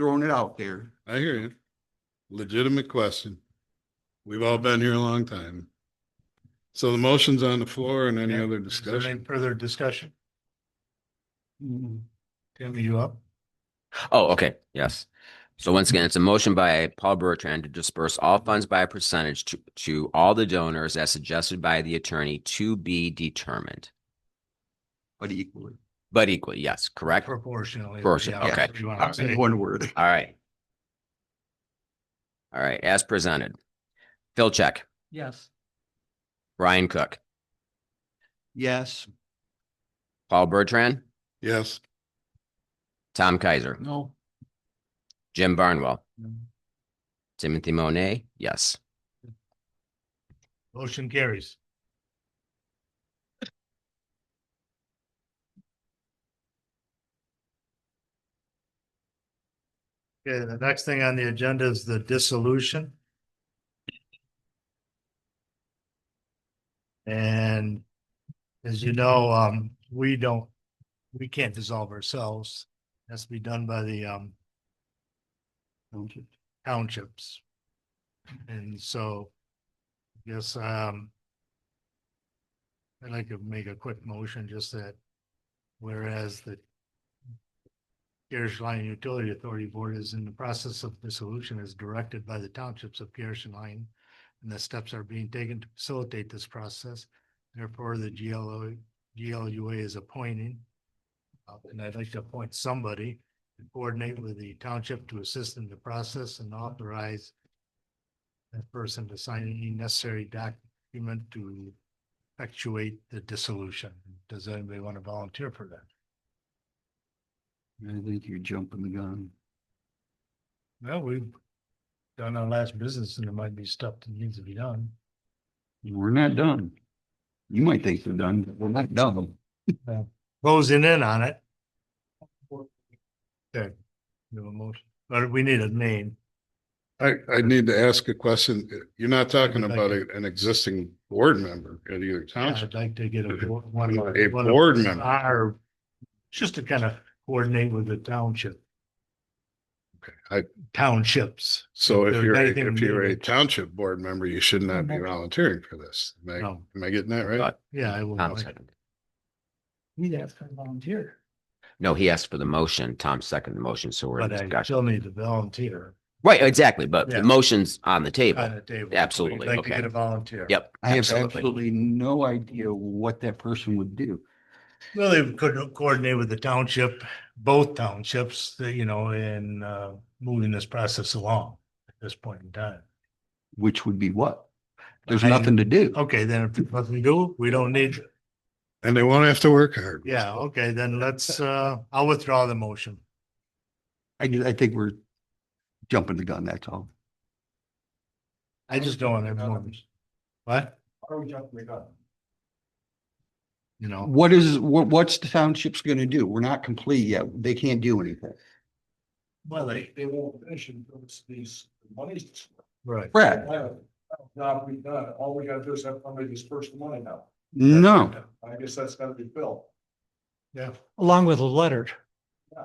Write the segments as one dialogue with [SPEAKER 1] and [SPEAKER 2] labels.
[SPEAKER 1] throwing it out there.
[SPEAKER 2] I hear you. Legitimate question. We've all been here a long time. So the motion's on the floor and any
[SPEAKER 3] Yeah.
[SPEAKER 2] other
[SPEAKER 3] Is there any
[SPEAKER 2] discussion?
[SPEAKER 3] Further discussion. Tim, are you up?
[SPEAKER 4] Oh, okay, yes. So once again, it's a motion by Paul Bertrand to disperse all funds by a percentage to, to all the donors as suggested by the attorney to be determined.
[SPEAKER 1] But equally,
[SPEAKER 4] But equally, yes, correct? All
[SPEAKER 3] Proportionally.
[SPEAKER 4] Proportion-
[SPEAKER 3] yeah,
[SPEAKER 4] okay.
[SPEAKER 3] if you wanna say.
[SPEAKER 1] in one word.
[SPEAKER 4] right. All right, as presented. Phil Check,
[SPEAKER 5] Yes.
[SPEAKER 4] Brian Cook,
[SPEAKER 1] Yes,
[SPEAKER 4] Paul Bertrand,
[SPEAKER 2] Yes,
[SPEAKER 4] Tom Kaiser,
[SPEAKER 3] No.
[SPEAKER 4] Jim Barnwell,
[SPEAKER 3] No.
[SPEAKER 4] Timothy Monet, yes.
[SPEAKER 3] Motion carries. Okay, the next thing on the agenda is the dissolution. And as you know, um, we don't, we can't dissolve ourselves. Has to be done by the um townships. And so Yes, um. I'd like to make a quick motion, just that whereas the. Garrish Line Utility Authority Board is in the process of dissolution as directed by the townships of Garrish and Line. And the steps are being taken to facilitate this process. Therefore, the GLO, GLUA is appointing. uh, And I'd like to appoint somebody to coordinate with the township to assist in the process and authorize that person to sign any necessary document to effectuate the dissolution. Does anybody want to volunteer for that?
[SPEAKER 1] I think you're jumping the gun.
[SPEAKER 3] Well, we've done our last business and there might be stuff that needs to be done.
[SPEAKER 1] We're not done. You might think we're done, but we're not done.
[SPEAKER 3] Closing in on it. Okay. We have a motion, but we need a name.
[SPEAKER 2] I, I need to ask a question. You're not talking
[SPEAKER 3] I'd like
[SPEAKER 2] about
[SPEAKER 3] to-
[SPEAKER 2] a- an existing board member at either township.
[SPEAKER 3] I'd like to get a. bo- one of-
[SPEAKER 2] A
[SPEAKER 3] one of
[SPEAKER 2] board member.
[SPEAKER 3] Our, just to kind of coordinate with the township,
[SPEAKER 2] Okay. I,
[SPEAKER 3] townships.
[SPEAKER 2] so if
[SPEAKER 3] There's
[SPEAKER 2] you're, a-
[SPEAKER 3] anything
[SPEAKER 2] if you're a
[SPEAKER 3] needed.
[SPEAKER 2] township board member, you should not be volunteering for this. Am I,
[SPEAKER 3] No,
[SPEAKER 2] am I getting that right?
[SPEAKER 4] Uh,
[SPEAKER 3] yeah, I will.
[SPEAKER 4] Tom seconded.
[SPEAKER 5] He'd ask for a volunteer.
[SPEAKER 4] No, he asked for the motion. Tom seconded the motion, so we're in
[SPEAKER 3] But I
[SPEAKER 4] discussion.
[SPEAKER 3] still need to volunteer
[SPEAKER 4] Right, exactly, but the
[SPEAKER 3] Yeah.
[SPEAKER 4] motion's on the
[SPEAKER 3] on
[SPEAKER 4] table.
[SPEAKER 3] the table.
[SPEAKER 4] Absolutely,
[SPEAKER 3] Like to
[SPEAKER 4] okay.
[SPEAKER 3] get a volunteer.
[SPEAKER 4] Yep.
[SPEAKER 1] I have
[SPEAKER 4] absolutely.
[SPEAKER 1] absolutely no idea what that person would do.
[SPEAKER 3] Well, they could coordinate with the township, both townships, you know, in uh moving this process along at this point in time.
[SPEAKER 1] Which would be what? There's
[SPEAKER 3] I-
[SPEAKER 1] nothing to do.
[SPEAKER 3] Okay, then if there's nothing to do, we don't need,
[SPEAKER 2] And they won't have to work hard.
[SPEAKER 3] yeah, okay, then let's uh, I'll withdraw the motion.
[SPEAKER 1] I, ju- I think we're jumping the gun, that's all.
[SPEAKER 3] I just don't want everyone. What? You know,
[SPEAKER 1] What is, what, what's the township's gonna do? We're not complete yet. They can't do anything.
[SPEAKER 3] well, they,
[SPEAKER 6] they won't finish until it's these monies.
[SPEAKER 3] right,
[SPEAKER 1] Brad,
[SPEAKER 6] Job we done, all we gotta do is have somebody disperse the money now.
[SPEAKER 1] no,
[SPEAKER 6] I guess that's gotta be Phil.
[SPEAKER 3] yeah.
[SPEAKER 5] Along with a letter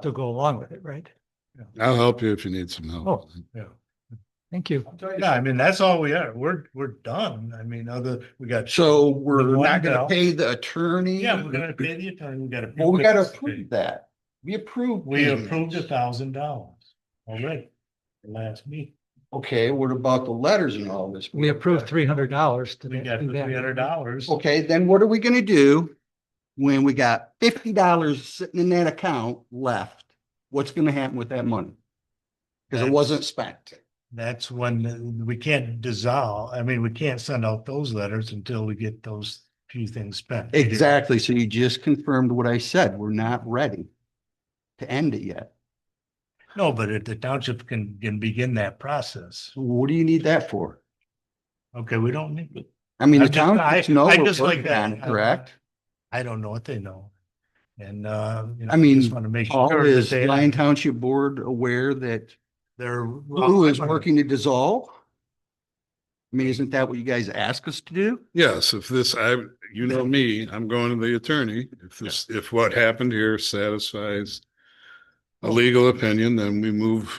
[SPEAKER 5] to go along with it, right?
[SPEAKER 2] I'll help you if you need some help.
[SPEAKER 3] Oh.
[SPEAKER 5] Thank you.
[SPEAKER 6] I'm telling you,
[SPEAKER 3] Yeah, I mean, that's all we are. We're, we're done. I mean, other, we got.
[SPEAKER 1] so we're
[SPEAKER 3] Well,
[SPEAKER 1] not
[SPEAKER 3] no.
[SPEAKER 1] gonna pay the attorney?
[SPEAKER 3] Yeah, we're gonna pay the attorney, we gotta.
[SPEAKER 1] Well, we gotta approve that. We approved.
[SPEAKER 3] We
[SPEAKER 1] payments.
[SPEAKER 3] approved a thousand dollars already, the last meeting.
[SPEAKER 1] Okay, what about the letters and all this?
[SPEAKER 5] We approved three hundred dollars to
[SPEAKER 3] We
[SPEAKER 5] do
[SPEAKER 3] got the three hundred
[SPEAKER 5] that.
[SPEAKER 3] dollars.
[SPEAKER 1] Okay, then what are we gonna do when we got fifty dollars sitting in that account left? What's gonna happen with that money? Cause it wasn't spent.
[SPEAKER 3] That's when we can't dissolve, I mean, we can't send out those letters until we get those few things spent.
[SPEAKER 1] Exactly. So you just confirmed what I said. We're not ready to end it yet.
[SPEAKER 3] No, but if the township can, can begin that process,
[SPEAKER 1] So What do you need that for?
[SPEAKER 3] okay, we don't need it.
[SPEAKER 1] I mean,
[SPEAKER 3] I
[SPEAKER 1] the
[SPEAKER 3] just-
[SPEAKER 1] town,
[SPEAKER 3] I-
[SPEAKER 1] no,
[SPEAKER 3] I
[SPEAKER 1] we're
[SPEAKER 3] just like
[SPEAKER 1] working on it,
[SPEAKER 3] that.
[SPEAKER 1] correct?
[SPEAKER 3] I don't know what they know. And, uh. you know,
[SPEAKER 1] I mean,
[SPEAKER 3] just want to make
[SPEAKER 1] Paul,
[SPEAKER 3] sure
[SPEAKER 1] is
[SPEAKER 3] that they-
[SPEAKER 1] Lyon Township Board aware that
[SPEAKER 3] They're.
[SPEAKER 1] who is working to dissolve? I mean, isn't that what you guys ask us to do?
[SPEAKER 2] Yes, if this, I, you know me, I'm going to the attorney. If this, if what happened here satisfies a legal opinion, then we move